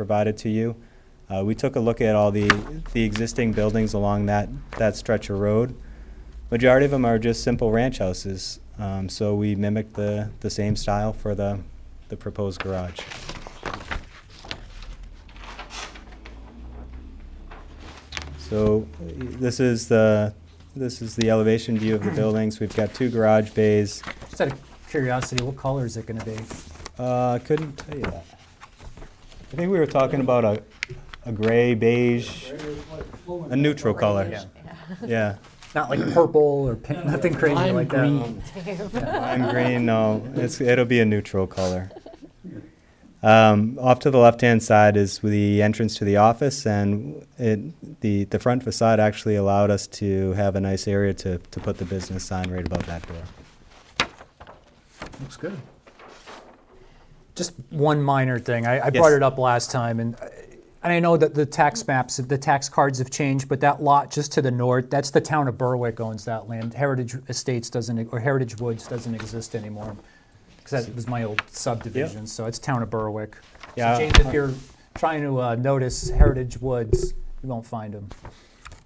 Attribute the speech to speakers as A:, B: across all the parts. A: provided to you. Uh, We took a look at all the, the existing buildings along that, that stretch of road. Majority of them are just simple ranch houses, um, so we mimicked the, the same style for the, the proposed garage. So uh, this is the, this is the elevation view of the buildings. We've got two garage bays.
B: Just out of curiosity, what color is it gonna be?
A: Uh, couldn't tell you that. I think we were talking about a, a gray beige, a neutral color.
B: Yeah.
A: Yeah,
B: Not like purple or pink, nothing crazy like that.
A: lime green, no, it's, it'll be a neutral color. Um, off to the left-hand side is the entrance to the office and it, the, the front facade actually allowed us to have a nice area to, to put the business sign right above that door.
B: Looks good. Just one minor thing. I, I brought
A: Yes.
B: it up last time and, uh, and I know that the tax maps, the tax cards have changed, but that lot just to the north, that's the town of Berwick owns that land. Heritage Estates doesn't, or Heritage Woods doesn't exist anymore. Because that was my old subdivision, so it's town of Berwick.
A: Yeah.
B: So James, if you're trying to uh, notice Heritage Woods, you won't find them.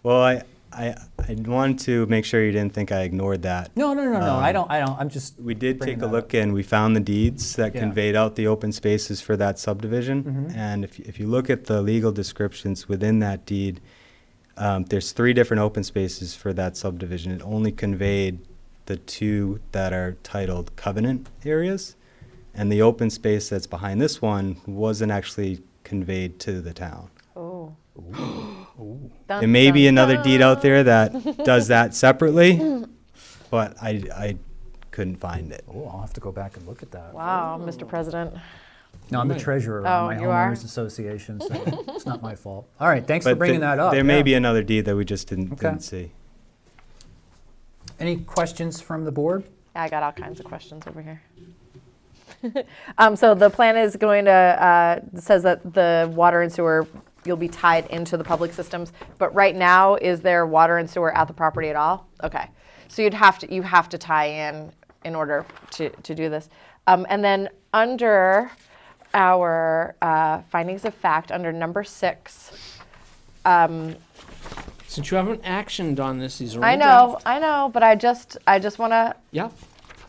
A: Well, I, I, I wanted to make sure you didn't think I ignored that.
B: No, no, no, no. I
A: Um,
B: don't. I don't. I'm just.
A: We did
B: bringing
A: take a
B: that
A: look and we found the deeds that
B: Yeah.
A: conveyed out the open spaces for that subdivision.
B: Mhm.
A: And if, if you look at the legal descriptions within that deed, um, there's three different open spaces for that subdivision. It only conveyed the two that are titled covenant areas. And the open space that's behind this one wasn't actually conveyed to the town.
C: Oh.
A: There may be another deed out there that does that separately, but I, I couldn't find it.
B: Oh, I'll have to go back and look at that.
C: Wow, Mr. President.
B: No, I'm the treasurer
C: Oh,
B: of my
C: you
B: homeowners
C: are?
B: association, so it's not my fault. All right, thanks for
A: But
B: bringing
A: the-
B: that up.
A: There may
B: yeah.
A: be another deed that we just didn't,
B: Okay.
A: didn't see.
B: Any questions from the board?
C: I got all kinds of questions over here. um, so the plan is going to uh, says that the water and sewer you'll be tied into the public systems. But right now, is there water and sewer at the property at all? Okay, so you'd have to you have to tie in in order to to do this. Um, and then under our uh, findings of fact, under number six,
D: Since you haven't actioned on this, these are
C: I
D: all
C: know,
D: draft.
C: I know, but I just I just want to
D: Yep.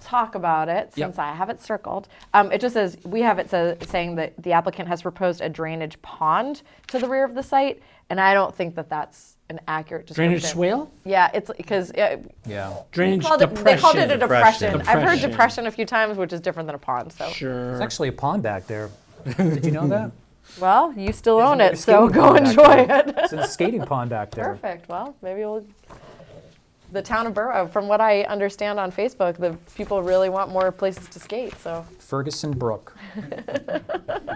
C: talk about it
D: Yep.
C: since I have it circled. Um, it just says, we have it sa- saying that the applicant has proposed a drainage pond to the rear of the site, and I don't think that that's an accurate description.
D: Drainage swale?
C: Yeah, it's because it,
B: Yeah.
D: Drainage
C: called it,
D: depression.
C: they called it a depression.
A: Depression.
C: I've heard
D: Depression.
C: depression a few times, which is different than a pond. So,
B: There's
D: Sure.
B: actually a pond back there. Did you know that?
C: well, you still own
B: There's a
C: it, so
B: skating
C: go
B: pond back
C: enjoy
B: there.
C: it.
B: It's a skating pond back there.
C: Perfect. Well, maybe we'll. The town of Borough, from what I understand on Facebook, the people really want more places to skate. So,
B: Ferguson Brook.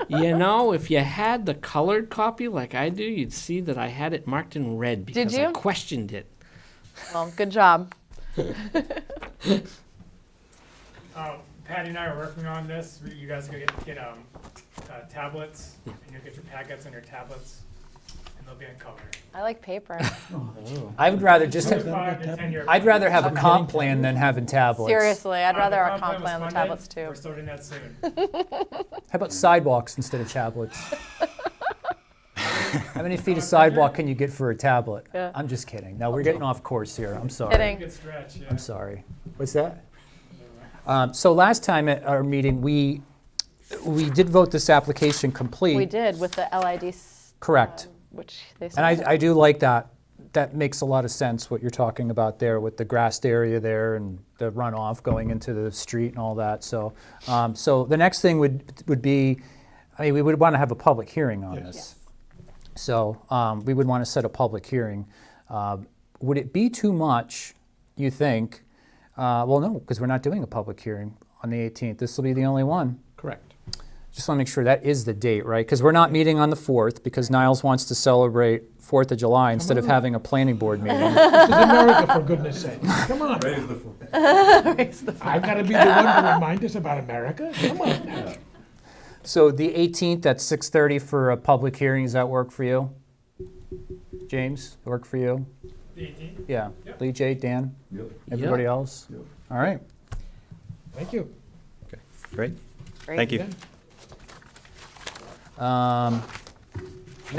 D: you know, if you had the colored copy like I do, you'd see that I had it marked in red because I
C: you?
D: questioned it.
C: well, good job.
E: Uh, Patty and I are working on this. We- You guys go get, get um, uh, tablets, and you'll get your packets and your tablets, and they'll be in color.
C: I like paper.
B: I would rather just. Have,
E: Five to ten year.
B: I'd rather have a comp plan than having tablets.
C: Seriously, I'd
E: Uh, the
C: rather our
E: comp
C: comp
E: was
C: plan the
E: funded.
C: tablets too.
E: We're starting that soon.
B: How about sidewalks instead of tablets? How many feet of sidewalk can you get for a tablet?
C: Yeah.
B: I'm just kidding. No, we're getting off course here. I'm sorry.
C: Kidding.
E: Good stretch, yeah.
B: I'm sorry. What's that? Um, so last time at our meeting, we we did vote this application complete.
C: We did with the LID, s-
B: Correct.
C: which they
B: and
C: said.
B: I, I do like that. That makes a lot of sense what you're talking about there with the grassed area there and the runoff going into the street and all that. So um, so the next thing would would be, I mean, we would want to have a public hearing on this. So um, we would want to set a public hearing. Uh, would it be too much, you think? Uh, well, no, because we're not doing a public hearing on the 18th. This will be the only one.
D: Correct.
B: Just want to make sure that is the date, right? Because we're not meeting on the 4th because Niles wants to celebrate 4th of July instead of having a planning board meeting.
F: This is America, for goodness sake. Come on. I've got to be the one to remind us about America? Come on. now.
B: So the 18th at 6:30 for a public hearing, does that work for you? James, work for you?
E: The 18th?
B: Yeah.
E: Yep.
B: Lee, J, Dan, everybody else? All right.
F: Thank you.
A: Great,
C: Great.
A: thank you.
F: Yeah.
B: Um,